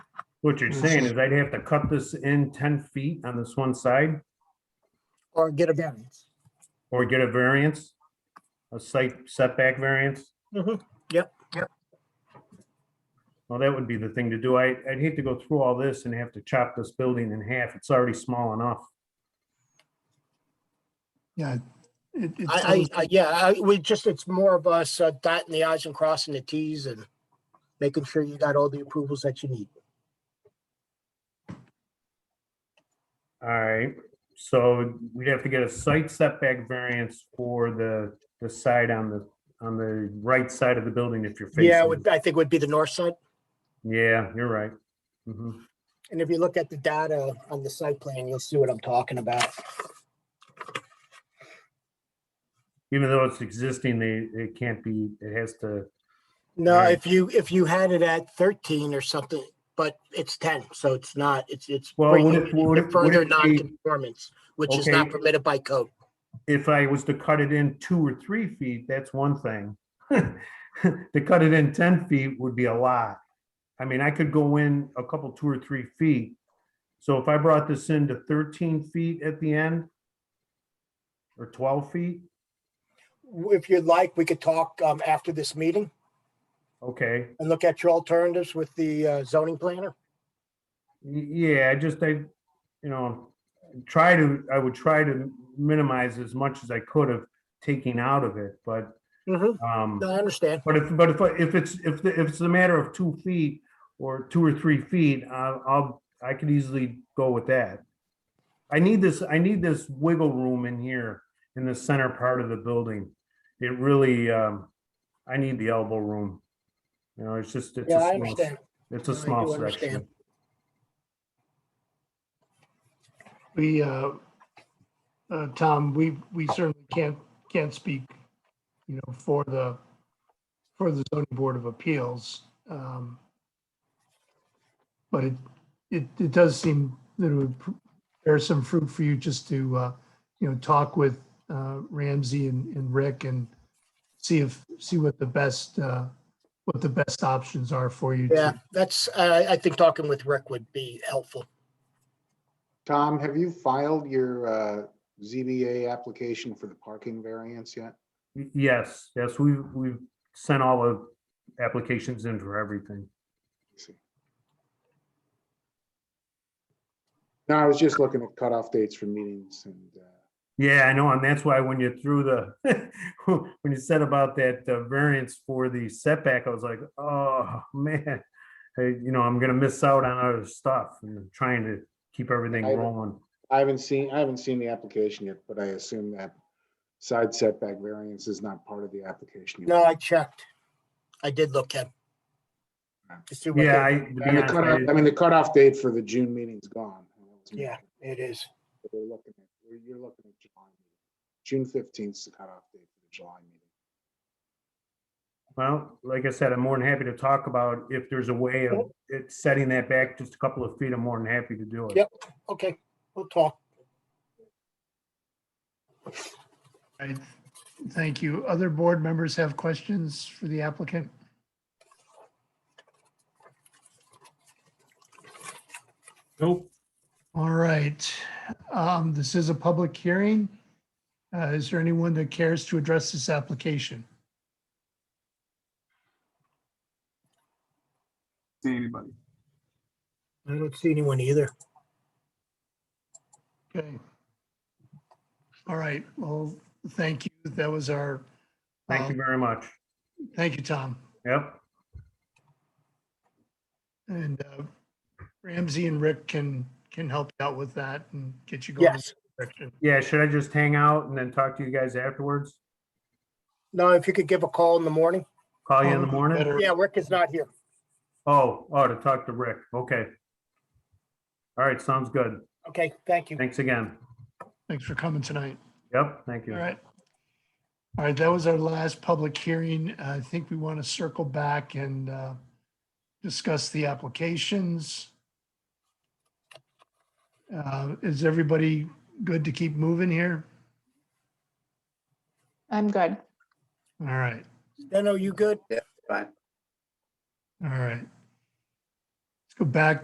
What you're saying is I'd have to cut this in ten feet on this one side or get a variance. or get a variance? A site setback variance? Mhm. Well, that would be the thing to do. I, I'd hate to go through all this and have to chop this building in half. It's already small enough. Yeah. it- it I, sounds- I, I- yeah, I, we just, it's more of us uh, dotting the i's and crossing the t's and making sure you got all the approvals that you need. All right, so we'd have to get a site setback variance for the, the side on the, on the right side of the building if you're facing. Yeah, would, I think would be the north side. Yeah, you're right. Mhm. And if you look at the data on the site plan, you'll see what I'm talking about. Even though it's existing, they, it can't be, it has to, No, Right. if you, if you had it at thirteen or something, but it's ten, so it's not, it's, it's Well, would bringing it- would it it- to would further it be- non-conformance, which is Okay. not permitted by code. if I was to cut it in two or three feet, that's one thing. To cut it in ten feet would be a lot. I mean, I could go in a couple, two or three feet. So if I brought this in to thirteen feet at the end or twelve feet, If you'd like, we could talk um, after this meeting okay. and look at your alternatives with the uh, zoning planner. Y- Yeah, I just, I, you know, try to, I would try to minimize as much as I could of taking out of it, but, No, um, I understand. but if, but if, I- if it's, if, the- if it's a matter of two feet or two or three feet, I'll, I'll, I could easily go with that. I need this, I need this wiggle room in here, in the center part of the building. It really, um, I need the elbow room. You know, it's just, it's Yeah, I a small, understand. it's a No, I do small understand. section. We, uh, uh, Tom, we, we certainly can't, can't speak, you know, for the, for the zoning board of appeals. um, But it, it, it does seem that it would pr- bear some fruit for you just to, uh, you know, talk with uh, Ramsey and, and Rick and see if, see what the best, uh, what the best options are for you. to- Yeah, that's, I, I think talking with Rick would be helpful. Tom, have you filed your uh, ZBA application for the parking variance yet? Y- Yes, yes, we, we've sent all the applications in for everything. No, I was just looking at cutoff dates for meetings and, uh, Yeah, I know, and that's why when you threw the, when you said about that uh, variance for the setback, I was like, oh, man. Hey, You know, I'm gonna miss out on other stuff and I'm trying to keep everything I- rolling. I haven't seen, I haven't seen the application yet, but I assume that side setback variance is not part of the application. yet. No, I checked. I did look at. to see what Yeah, they- I, to be And the honest, I cutoff, I didn't- mean, the cutoff date for the June meeting's gone. Yeah, it is. But We're looking at, we're- you're looking at July. meeting. June fifteenth is the cutoff date for the July meeting. well, like I said, I'm more than happy to talk about if there's a way of it setting that back just a couple of feet, I'm more than happy to do it. Yep. Okay, we'll talk. Right. Thank you. Other board members have questions for the applicant? Nope. All right. Um, This is a public hearing. Uh, Is there anyone that cares to address this application? see anybody. I don't see anyone either. Okay. All right. Well, thank you. That was our, Thank you um, very much. thank you, Tom. Yep, And uh, Ramsey and Rick can, can help you out with that and get you going. in Yes. the direction. yeah, should I just hang out and then talk to you guys afterwards? No, if you could give a call in the morning. Call you in the Probably morning? Oh, better. Yeah, Rick is not here. Oh, oh, to talk to Rick, okay. All right, sounds good. Okay, thank you. Thanks again. Thanks for coming tonight. Yep, thank you. All right. All right, that was our last public hearing. I think we want to circle back and uh, discuss the applications. Uh, Is everybody good to keep moving here? I'm good. All right, Then are you good? all right. Let's go back